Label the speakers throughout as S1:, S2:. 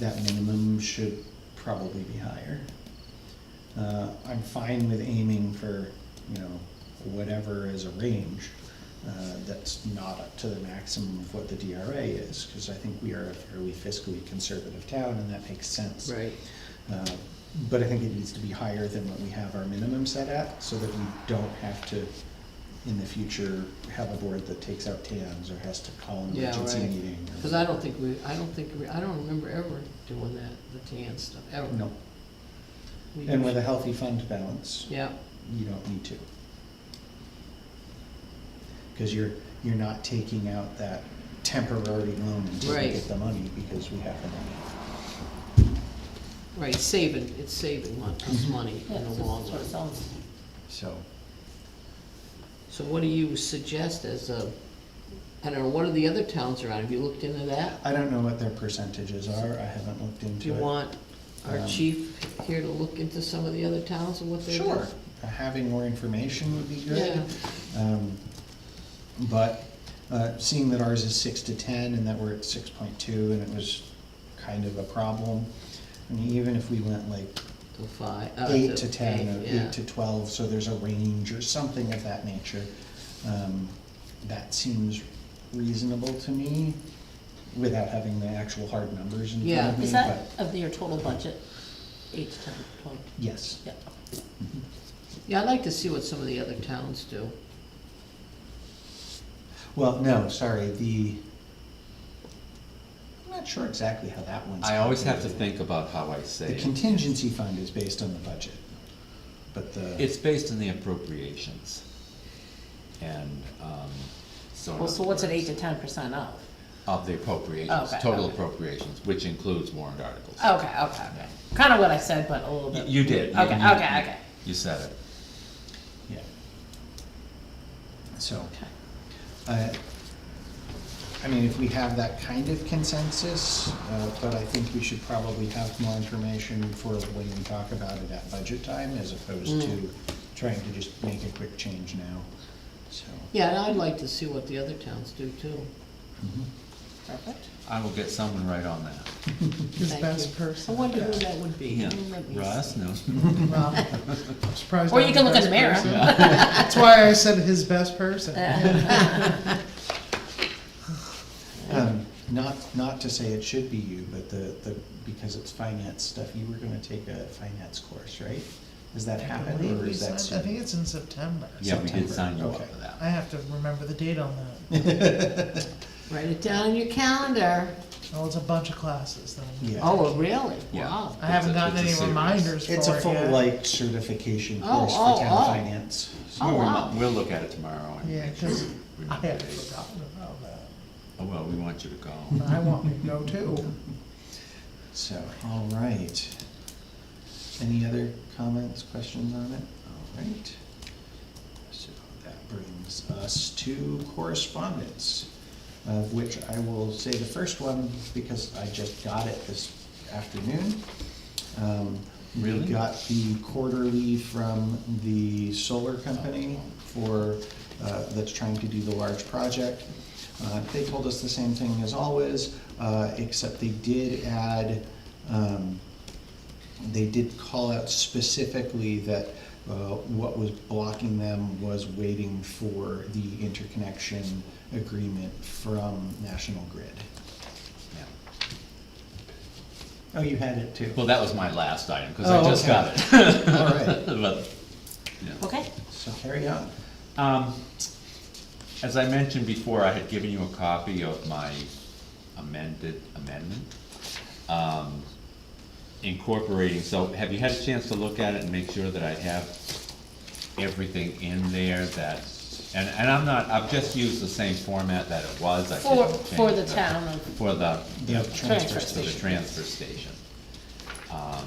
S1: that minimum should probably be higher. Uh, I'm fine with aiming for, you know, whatever is a range, uh, that's not up to the maximum of what the DRA is, because I think we are a fairly fiscally conservative town, and that makes sense.
S2: Right.
S1: Uh, But I think it needs to be higher than what we have our minimum set at, so that we don't have to, in the future, have a board that takes out TANs or has to call an
S2: Yeah,
S1: emergency
S2: right.
S1: meeting. or-
S2: Because I don't think we, I don't think, we I don't remember ever doing that, the tan stuff, ever.
S1: No,
S2: We
S1: and with a
S2: usually-
S1: healthy fund balance,
S2: Yeah,
S1: you don't need to. Because you're, you're not taking out that temporary loan until you
S2: Right.
S1: get the money, because we have the money.
S2: right, saving, it's saving mon- us
S1: Mm-hmm.
S2: money
S3: Yeah,
S2: in the
S3: so that's
S2: long
S3: what it
S2: run.
S3: sounds
S1: So,
S2: So what do you suggest as a, I don't know, what are the other towns around? Have you looked into that?
S1: I don't know what their percentages are, I haven't looked into it.
S2: Do you want our
S1: Um,
S2: chief here to look into some of the other towns and what they're doing?
S1: Sure, having more information would be good.
S2: Yeah.
S1: Um, But uh, seeing that ours is six to ten and that we're at six point two and it was kind of a problem, I mean, even if we went like
S2: To five. uh,
S1: eight to ten or
S2: yeah.
S1: eight to twelve, so there's a range or something of that nature, um, that seems reasonable to me without having the actual hard numbers in front
S2: Yeah.
S1: of me.
S3: Is that
S1: but
S3: of your total budget, eight to ten, twelve?
S1: Yes,
S3: Yeah,
S2: Yeah, I'd like to see what some of the other towns do.
S1: well, no, sorry, the, I'm not sure exactly how that one's.
S4: I always have to
S1: calculated.
S4: think about how I say
S1: The
S4: it.
S1: contingency fund is based on the budget, but the,
S4: It's based on the appropriations. And, um, so. in
S3: well, so
S4: other
S3: what's it eight
S4: words,
S3: to ten percent of?
S4: Of the appropriations,
S3: Okay,
S4: total
S3: okay.
S4: appropriations, which includes warrant articles.
S3: Okay, okay, okay, kinda what I said, but a little
S4: Y-
S3: bit.
S4: You did. You-
S3: Okay,
S4: you-
S3: okay, okay.
S4: You said it.
S1: yeah. So,
S3: Okay.
S1: I, I mean, if we have that kind of consensus, uh, but I think we should probably have more information for when we talk about it at budget time as opposed
S2: Mm.
S1: to trying to just make a quick change now, so.
S2: Yeah, and I'd like to see what the other towns do too.
S3: Perfect.
S4: I will get someone right on that.
S5: His
S2: Thank
S5: best
S2: you. I
S5: person.
S2: wonder who that would be.
S4: Yeah.
S2: Let me
S4: Russ knows.
S5: Well, I'm surprised
S3: Or
S5: I'm
S3: you can look in
S5: best
S3: the mirror.
S5: person. That's why I said his best person.
S1: Um, not, not to say it should be you, but the, the, because it's finance stuff, you were gonna take a finance course, right? Does that
S5: I
S1: happen
S5: believe
S1: or
S5: we
S1: is that
S5: signed, I think
S1: soon?
S5: it's in September. Oh,
S4: Yeah, we did
S1: September,
S4: sign you
S1: okay.
S4: up for that.
S5: I have to remember the date on that.
S2: see. Write it down on your calendar.
S5: Well, Oh, it's a bunch of classes then.
S1: Yeah.
S2: Oh, really?
S4: Yeah.
S2: Wow.
S5: I haven't
S4: It's a-
S5: gotten
S4: it's a
S5: any
S4: series.
S5: reminders for it
S1: It's a full
S5: yet.
S1: like certification
S2: Oh,
S1: course
S2: oh,
S1: for
S2: oh.
S1: town finance. so-
S2: Oh,
S4: We'll remi-
S2: wow.
S4: We'll look at it tomorrow and
S5: Yeah,
S4: make sure we
S5: 'cause I
S4: remember
S5: had
S4: dates.
S5: forgotten about that.
S4: Oh, well, we want you to go.
S5: I want to go too.
S1: So, all right. Any other comments, questions on it? All right. So that brings us to correspondence, of which I will say the first one because I just got it this afternoon. Um, We
S4: Really?
S1: got the quarterly from the solar company for, uh, that's trying to do the large project. Uh, They told us the same thing as always, uh, except they did add, um, they did call out specifically that uh, what was blocking them was waiting for the interconnection agreement from National Grid.
S4: Yeah.
S1: Oh, you had it too.
S4: Well, that was my last item, because
S1: Oh,
S4: I just
S1: okay.
S4: got it.
S1: All right,
S4: But, yeah.
S3: Okay,
S1: so carry on.
S4: Um, as I mentioned before, I had given you a copy of my amended amendment. um, Incorporating, so have you had a chance to look at it and make sure that I have everything in there that, and, and I'm not, I've just used the same format that it was. I
S3: for,
S4: didn't
S3: for
S4: change
S3: the
S4: the-
S3: town of,
S4: For the,
S1: The transfer
S3: Transfer
S4: for the
S3: station.
S1: station.
S4: transfer station. Um,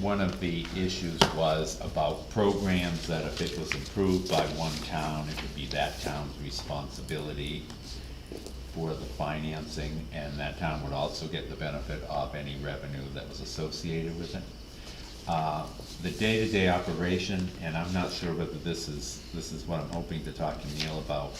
S4: One of the issues was about programs that if it was approved by one town, it would be that town's responsibility for the financing, and that town would also get the benefit of any revenue that was associated with it. Uh, The day-to-day operation, and I'm not sure whether this is, this is what I'm hoping to talk to Neil about,